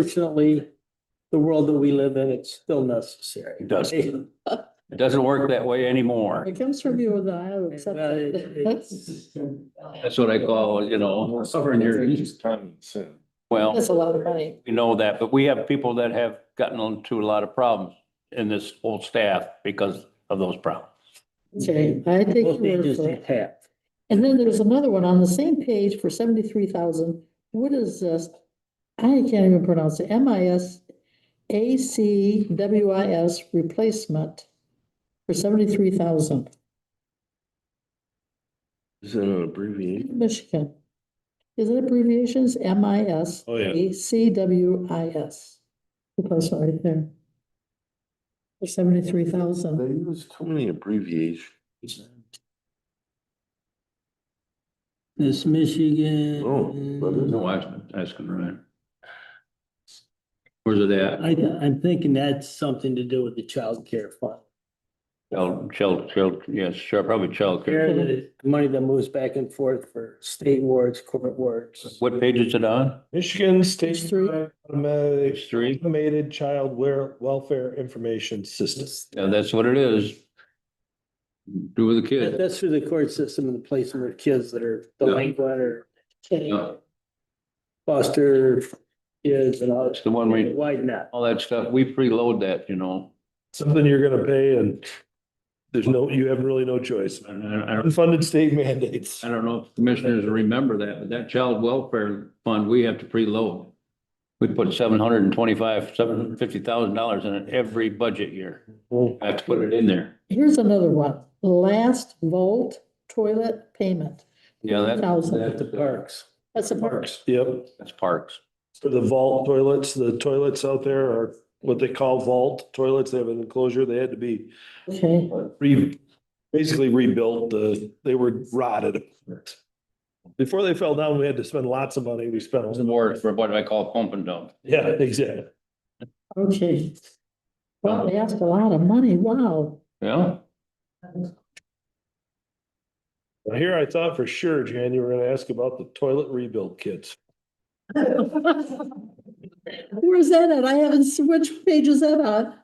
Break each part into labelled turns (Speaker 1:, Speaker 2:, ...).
Speaker 1: Unfortunately, the world that we live in, it's still necessary.
Speaker 2: It doesn't, it doesn't work that way anymore.
Speaker 3: It comes from you and I will accept
Speaker 1: Well, it-
Speaker 3: that.
Speaker 1: it's-
Speaker 2: That's what I call, you know, covering your, well,
Speaker 3: That's a lot of money.
Speaker 2: we know that, but we have people that have gotten into a lot of problems in this whole staff because of those problems.
Speaker 3: Okay, I take your
Speaker 1: Most
Speaker 3: word
Speaker 1: ages
Speaker 3: for
Speaker 1: need
Speaker 3: it.
Speaker 1: half.
Speaker 3: And then there's another one on the same page for seventy-three thousand. What is this? I can't even pronounce it. M I S A C W I S replacement for seventy-three thousand,
Speaker 4: Is it an abbreviation?
Speaker 3: Michigan. Is it abbreviations? M I S
Speaker 4: Oh, yeah.
Speaker 3: A C W I S. Replacement right there. For seventy-three thousand.
Speaker 4: They use too many abbreviations.
Speaker 1: This Michigan.
Speaker 4: Oh, but it's-
Speaker 2: No, I was asking Ryan. Where's it at?
Speaker 1: I, I'm thinking that's something to do with the child care fund.
Speaker 2: Child, child, child, yes, sure, probably
Speaker 1: Here,
Speaker 2: childcare.
Speaker 1: the Money that moves back and forth for state wards, court wards.
Speaker 2: What page is it on?
Speaker 5: Michigan
Speaker 3: Page
Speaker 5: State
Speaker 3: three.
Speaker 5: Automatic
Speaker 2: three.
Speaker 5: Automated Child Wear- Welfare Information System.
Speaker 2: Yeah, that's what it is. Do with the
Speaker 1: That-
Speaker 2: kid.
Speaker 1: That's through the court system and the placement of kids that are delinquent or
Speaker 2: Yeah.
Speaker 1: foster kids and all.
Speaker 2: That's the one we,
Speaker 1: Why not?
Speaker 2: all that stuff, we preload that, you know.
Speaker 5: Something you're gonna pay and there's no, you have really no choice.
Speaker 2: And I- I don't-
Speaker 5: Unfunded state mandates.
Speaker 2: I don't know if commissioners remember that, but that child welfare fund, we have to preload. We put seven hundred and twenty-five, seven hundred and fifty thousand dollars in it every budget year. I have to put it in there.
Speaker 3: Here's another one, last volt toilet payment.
Speaker 2: Yeah, that,
Speaker 3: Thousand,
Speaker 2: that-
Speaker 1: At the parks.
Speaker 3: that's a mark.
Speaker 5: Yep,
Speaker 2: that's parks.
Speaker 5: for the vault toilets, the toilets out there are what they call vault toilets. They have an enclosure. They had to be
Speaker 3: Okay,
Speaker 5: re, basically rebuilt. The, they were rotted. Before they fell down, we had to spend lots of money. We spent.
Speaker 2: Those are more for what I call pump and dump.
Speaker 5: Yeah, exactly.
Speaker 3: okay. Well, they asked a lot of money, wow.
Speaker 2: Yeah,
Speaker 5: Now, Here I thought for sure, Jan, you were gonna ask about the toilet rebuild kits.
Speaker 3: Where's that at? I haven't, s- which page is that on?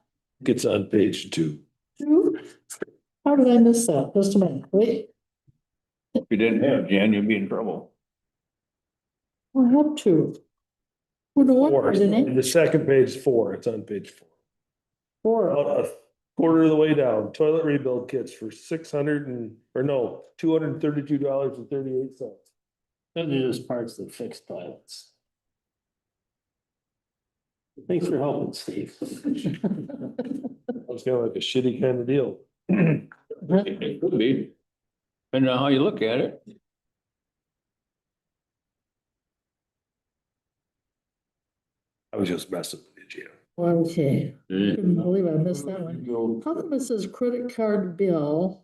Speaker 5: It's on page two.
Speaker 3: Two? How did I miss that? Just a minute, wait,
Speaker 2: if you didn't have Jan, you'd be in trouble.
Speaker 3: I have two. Well, no wonder
Speaker 5: Four.
Speaker 3: I didn't,
Speaker 5: The second page four, it's on page four.
Speaker 3: four,
Speaker 5: About a quarter of the way down, toilet rebuild kits for six hundred and, or no, two hundred and thirty-two dollars and thirty-eight cents.
Speaker 1: Those are just parts that fix toilets. Thanks for helping, Steve.
Speaker 5: It was kind of like a shitty kind of deal.
Speaker 2: It could be. Depending on how you look at it.
Speaker 5: I was just messing with you.
Speaker 3: okay,
Speaker 2: Yeah.
Speaker 3: couldn't believe I missed that one. How come it says credit card bill?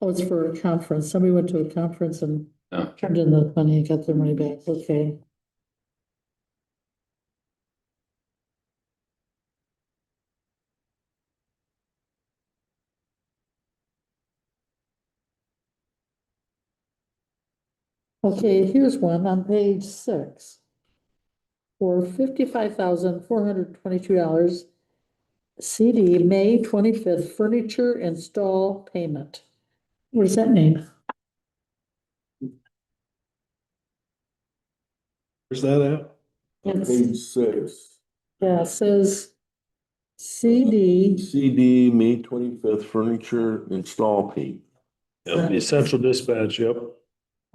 Speaker 3: Oh, it's for a conference. Somebody went to a conference and
Speaker 2: Yeah.
Speaker 3: turned in the money and got their money back. Okay. Okay, here's one on page six. For fifty-five thousand, four hundred twenty-two dollars. CD, May twenty-fifth, furniture install payment. What does that mean?
Speaker 5: Where's that at?
Speaker 3: It's,
Speaker 4: Page six,
Speaker 3: yeah, it says CD,
Speaker 4: CD, May twenty-fifth, furniture install fee.
Speaker 5: Yep, the Essential dispatch, yep.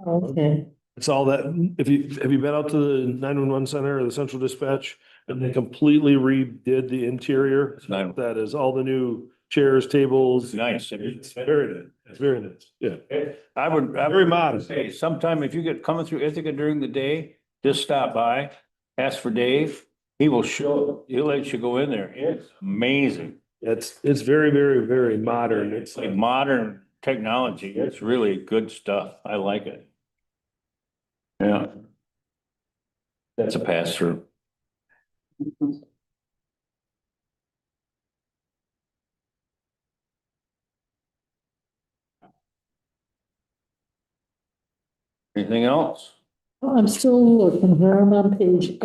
Speaker 3: okay,
Speaker 5: It's all that, if you, have you been out to the nine-one-one center or the central dispatch? And they completely redid the interior.
Speaker 2: Nine-
Speaker 5: That is all the new chairs, tables.
Speaker 2: nice.
Speaker 5: It's very nice. It's very nice. Yeah.
Speaker 2: I would, I
Speaker 5: Very
Speaker 2: would
Speaker 5: modest.
Speaker 2: say sometime if you get coming through Ithaca during the day, just stop by, ask for Dave. He will show, he'll let you go in there. It's amazing.
Speaker 5: It's, it's very, very, very modern. It's uh,
Speaker 2: It's like
Speaker 5: like,
Speaker 2: modern technology. It's really good stuff. I like it. Yeah. That's a pass through. Anything else?
Speaker 3: Oh, I'm still looking here, I'm on page